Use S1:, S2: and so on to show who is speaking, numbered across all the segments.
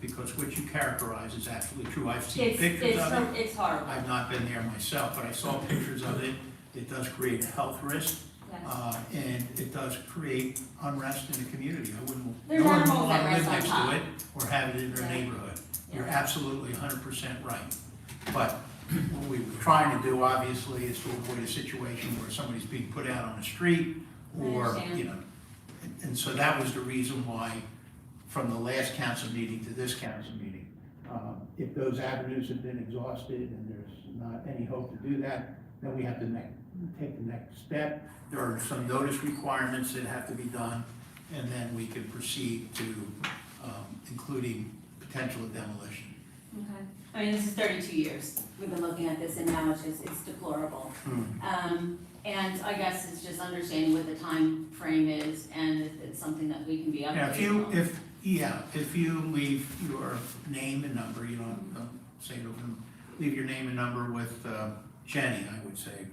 S1: because what you characterize is absolutely true. I've seen
S2: It's,
S1: pictures
S2: it's,
S1: of it.
S2: hor- it's horrible,
S3: Uh,
S1: I've not been there myself, but I saw pictures of it. It does create a health risk,
S2: yes.
S1: uh, and it does create unrest in the community. I wouldn't,
S2: There's
S1: no one would
S2: animals that
S1: wanna live
S2: rest on
S1: next
S2: top.
S1: to it or have it in their
S2: Yeah.
S1: neighborhood. You're
S2: Yeah.
S1: absolutely hundred percent right. But what we were trying to do, obviously, is to avoid a situation where somebody's being put out on the street
S2: I
S1: or,
S2: understand.
S1: you know. and- And so that was the reason why, from the last council meeting to this council meeting, um, if those avenues have been exhausted and there's not any hope to do that, then we have to ne- take the next step. There are some notice requirements that have to be done, and then we can proceed to, um, including potential demolition.
S2: Okay. I mean, this is thirty-two years we've been looking at this and now it's just, it's deplorable.
S3: Hmm.
S2: Um, and I guess it's just understanding what the time frame is and if it's something that we can be
S1: Yeah, if
S2: updated
S1: you,
S2: on.
S1: if, yeah, if you leave your name and number, you don't, don't say it over, them, leave your name and number with uh, Jenny, I would say.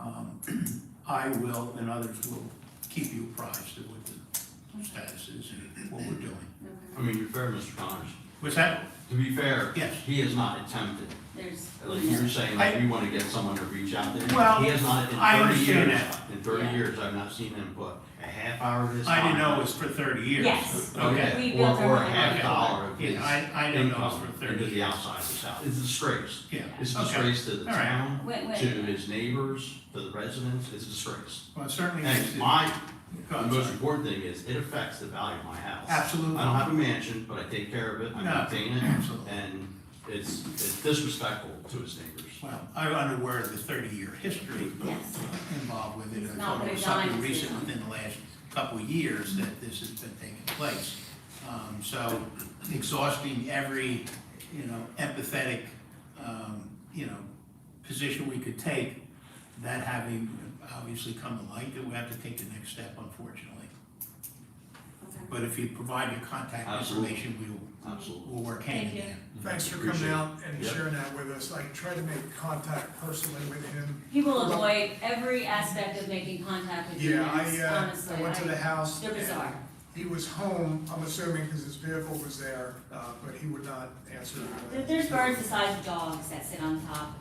S1: Um, I will and others will keep you apprised of what the status is and what we're doing.
S2: Okay.
S4: I mean, you're fair, Mr. Connors.
S1: Was that,
S4: To be fair,
S1: Yes.
S4: he has not attempted,
S2: There's.
S4: like you were saying, like we want to get someone to reach out to him.
S1: Well,
S4: He has not, in
S1: I
S4: thirty
S1: understand
S4: years,
S1: that.
S4: in thirty
S2: Yeah.
S4: years, I've not seen him put a half hour of his
S1: I
S4: time.
S1: didn't know it was for thirty years.
S2: Yes.
S1: Okay.
S2: We
S4: Okay, or,
S2: built our
S4: or a
S2: own
S4: half
S2: budget.
S4: dollar of his
S1: Yeah, I, I didn't know it was for
S4: income
S1: thirty
S4: into the
S1: years.
S4: outside of his house. It's a disgrace.
S1: Yeah,
S4: It's a
S1: okay.
S4: disgrace to the
S1: All right.
S4: town,
S2: Wait,
S4: to
S2: wait,
S4: his neighbors, to the residents, it's a disgrace.
S1: Well, it certainly. is-
S4: And my,
S1: Go
S4: the
S1: on,
S4: most
S1: sorry.
S4: important thing is, it affects the value of my house.
S1: Absolutely.
S4: I don't have a mansion, but I take care of it, I
S1: No,
S4: maintain it,
S1: absolutely.
S4: and it's, it's disrespectful to his neighbors.
S1: Well, I'm unaware of the thirty-year history
S2: Yes.
S1: involved with it.
S2: It's
S1: I
S2: not
S1: thought it was
S2: been done
S1: something
S2: since
S1: recent
S2: then.
S1: within the last couple of years that this has been taking place. Um, so exhausting every, you know, empathetic, um, you know, position we could take, that having obviously come to light, that we have to take the next step unfortunately.
S2: Okay.
S1: But if you provide your contact
S4: Absolutely.
S1: information, we will,
S4: Absolutely.
S1: we'll work hand in
S2: Thank you.
S1: hand.
S3: Thanks for
S4: Appreciate
S3: coming
S4: it.
S3: out and
S4: Yep.
S3: sharing that with us. I tried to make contact personally with him.
S2: He will avoid every aspect of making contact with
S3: Yeah,
S2: humans,
S3: I, uh,
S2: honestly.
S3: I went to the house.
S2: They're
S3: and
S2: bizarre.
S3: He was home, I'm assuming, because his vehicle was there, uh, but he would not answer.
S2: There- There's birds the size of dogs that sit on top,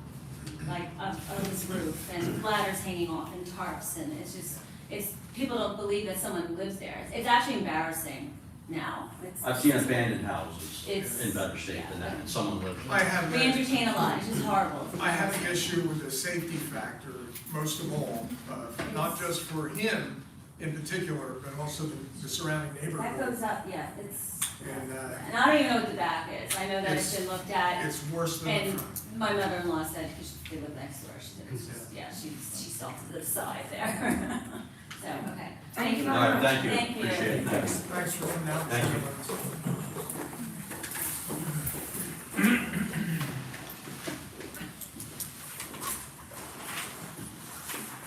S2: like, of, of this roof, and ladders hanging off, and tarps, and it's just, it's, people don't believe that someone lives there. It's actually embarrassing now. It's-
S4: I've seen abandoned houses
S2: It's-
S4: in better shape than that, and someone lived in
S3: I
S4: it.
S3: have,
S2: We
S3: an-
S2: entertain a lot, it's just horrible.
S3: I have an issue with the safety factor, most of all, uh, not just for him in particular, but also the the surrounding
S2: That
S3: neighborhood.
S2: goes up, yeah, it's,
S3: And uh,
S2: and I don't even know what the back is, I know that it's been looked at,
S3: it's worse than the
S2: and
S3: front.
S2: my mother-in-law said, because she lived next door, she said, it's just, yeah, she, she saw to the side there. So, okay, thank you very
S4: All
S2: much.
S4: right, thank you, appreciate it, thanks.
S3: Thanks for coming out.
S4: Thank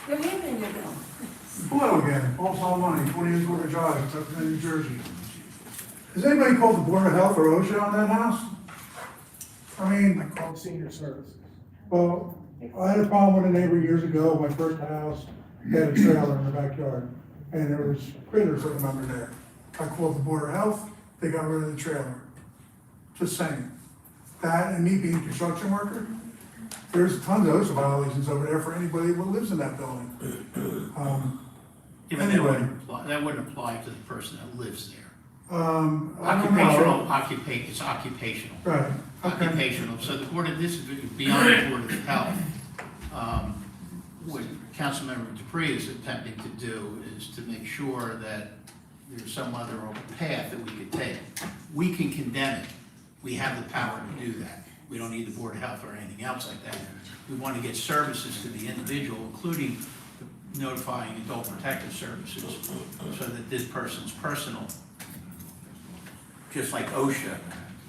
S5: Good evening, you know.
S6: Hello again, Paul Solomoni, 28 Quarter Drive, Tuckerton, New Jersey. Has anybody called the Board of Health or OSHA on that house? I
S3: I
S6: mean,
S3: called senior services.
S6: well, I had a problem with a neighbor years ago, my first house, they had a trailer in the backyard, and there was critters living under there. I called the Board of Health, they got rid of the trailer. Just saying. That and me being a construction worker, there's tons of OSHA violations over there for anybody that lives in that building. Um,
S1: Yeah, but that wouldn't
S6: Anyway.
S1: apply, that wouldn't apply to the person that lives there.
S6: Um, I don't know.
S1: Occupational, occupa, it's occupational,
S6: Right, okay.
S1: occupational, so the Board of, this is beyond the Board of Health. Um, What Councilmember Dupree is attempting to do is to make sure that there's some other path that we could take. We can condemn it, we have the power to do that, we don't need the Board of Health or anything else like that. We want to get services to the individual, including notifying adult protective services, so that this person's personal just like OSHA,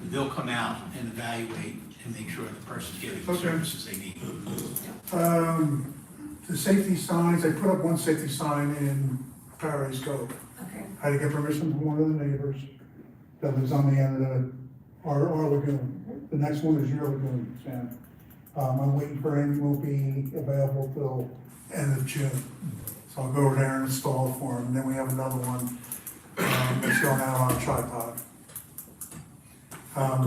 S1: they'll come out and evaluate and make sure the person's getting the
S6: Okay.
S1: services they need.
S6: Um, the safety signs, I put up one safety sign in Paradise Cove.
S5: Okay.
S6: I had to get permission from one of the neighbors that lives on the end of the, our, our lagoon. The next one is your lagoon, Sam. Um, I'm waiting for him, will be available till end of June. So I'll go over there and install it for him, and then we have another one, um, that's going out on a tripod. Um,